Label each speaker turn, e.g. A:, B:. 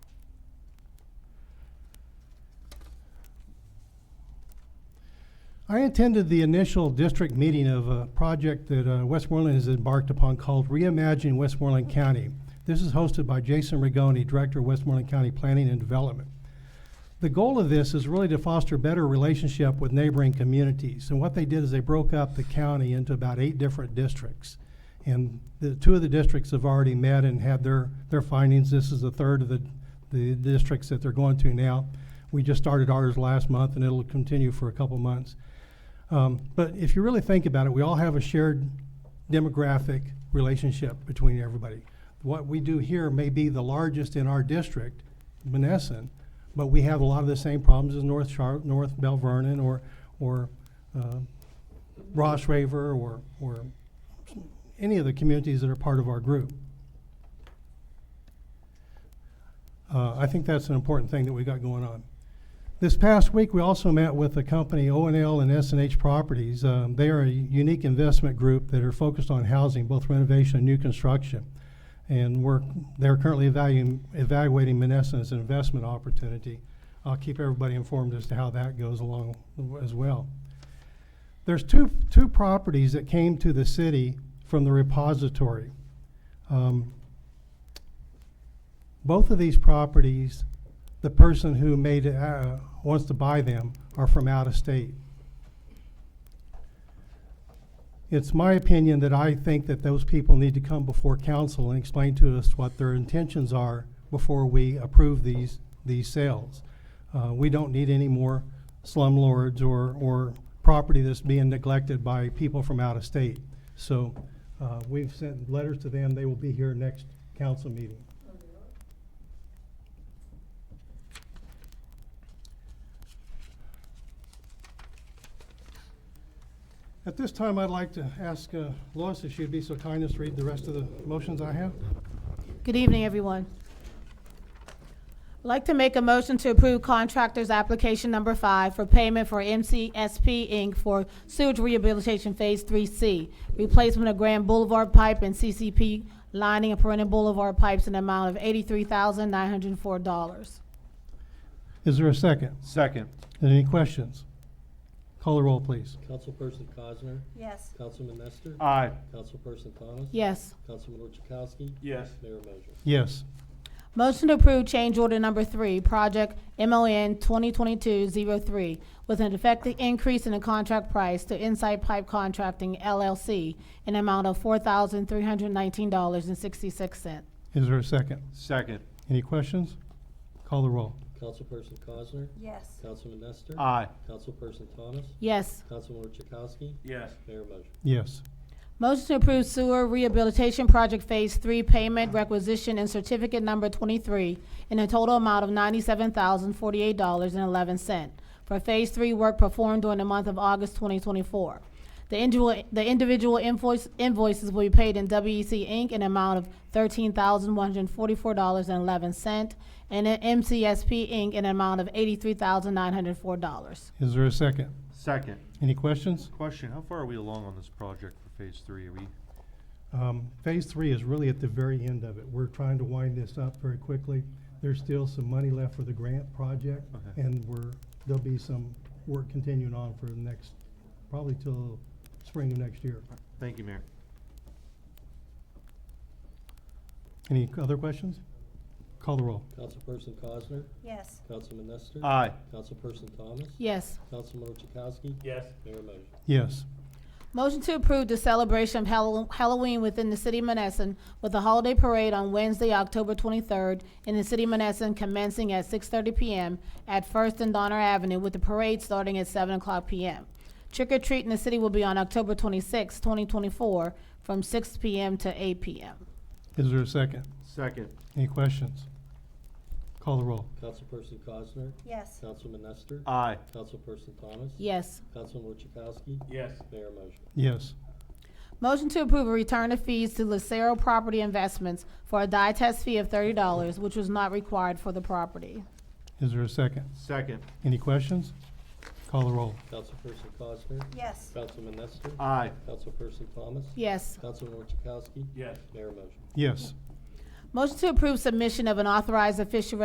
A: I attended the initial district meeting of a project that uh, Westmoreland has embarked upon called Reimagine Westmoreland County. This is hosted by Jason Rigoni, Director of Westmoreland County Planning and Development. The goal of this is really to foster better relationship with neighboring communities. And what they did is they broke up the county into about eight different districts. And the, two of the districts have already met and had their, their findings. This is the third of the, the districts that they're going to now. We just started ours last month and it'll continue for a couple months. Um, but if you really think about it, we all have a shared demographic relationship between everybody. What we do here may be the largest in our district, Menneson, but we have a lot of the same problems as North Char- North Bell Vernon or, or, uh, Ross Raver or, or any of the communities that are part of our group. Uh, I think that's an important thing that we got going on. This past week, we also met with the company O and L and S and H Properties. Um, they are a unique investment group that are focused on housing, both renovation and new construction. And we're, they're currently evaluating, evaluating Menneson as an investment opportunity. I'll keep everybody informed as to how that goes along as well. There's two, two properties that came to the city from the repository. Um, both of these properties the person who made, uh, wants to buy them are from out of state. It's my opinion that I think that those people need to come before council and explain to us what their intentions are before we approve these, these sales. Uh, we don't need any more slumlords or, or property that's being neglected by people from out of state. So, uh, we've sent letters to them, they will be here next council meeting. At this time, I'd like to ask uh, Lois if she'd be so kind as to read the rest of the motions I have.
B: Good evening, everyone. I'd like to make a motion to approve contractor's application number five for payment for MCSP Inc. for sewage rehabilitation Phase 3C, replacement of Grand Boulevard pipe and CCP lining of perennial boulevard pipes in the amount of $83,904.
A: Is there a second?
C: Second.
A: Any questions? Call the roll, please.
D: Councilperson Cosner,
E: yes,
D: Councilman Nestor,
E: Uh,
C: Aye.
D: Councilperson Thomas.
B: Yes.
D: Councilman Orchowski,
C: Yes.
D: Mayor Moser.
A: Yes.
B: Motion to approve change order number three, project MON 2022-03, with an effective increase in the contract price to Insight Pipe Contracting LLC in amount of $4,319.66.
A: Is there a second?
C: Second.
A: Any questions? Call the roll.
D: Councilperson Cosner,
E: yes, Uh.
D: Councilman Nestor.
C: Aye.
D: Councilperson Thomas,
B: Yes.
D: Councilman Orchowski,
C: Yes.
D: Mayor Moser.
A: Yes.
B: Motion to approve sewer rehabilitation project Phase 3 payment requisition and certificate number 23 in a total amount of $97,048.11 for Phase 3 work performed during the month of August 2024. The individual, the individual invoice, invoices will be paid in WEC Inc. in an amount of $13,144.11 and in MCSP Inc. in an amount of $83,904.
A: Is there a second?
C: Second.
A: Any questions?
C: Question, how far are we along on this project for phase three? Are we,
A: Um, phase three is really at the very end of it. We're trying to wind this up very quickly. There's still some money left for the grant project,
C: Okay.
A: and we're, there'll be some work continuing on for the next, probably till spring of next year.
C: thank you, Mayor.
A: Any other questions? Call the roll.
D: Councilperson Cosner,
E: yes,
D: Councilman Nestor.
E: Uh.
C: Aye.
D: Councilperson Thomas,
B: Yes.
D: Councilman Orchowski.
C: Yes.
D: Mayor Moser.
A: Yes.
B: Motion to approve the celebration of Hall- Halloween within the city of Menneson with a holiday parade on Wednesday, October 23rd in the city of Menneson commencing at 6:30 PM at First and Donner Avenue with the parade starting at 7 o'clock PM. Trick or treat in the city will be on October 26, 2024, from 6 PM to 8 PM.
A: Is there a second?
C: Second.
A: Any questions? Call the roll.
D: Councilperson Cosner,
E: yes, Uh.
D: Councilman Nestor.
C: Aye.
D: Councilperson Thomas.
B: Yes.
D: Councilman Orchowski,
C: Yes.
D: Mayor Moser.
A: Yes.
B: Motion to approve a return of fees to Lucero Property Investments for a die test fee of $30, which was not required for the property.
A: Is there a second?
C: Second.
A: Any questions? Call the roll.
D: Councilperson Cosner,
E: yes, Uh.
D: Councilman Nestor.
C: Aye.
D: Councilperson Thomas.
B: Yes.
D: Councilman Orchowski,
C: Yes.
D: Mayor Moser.
A: Yes.
B: Motion to approve submission of an authorized official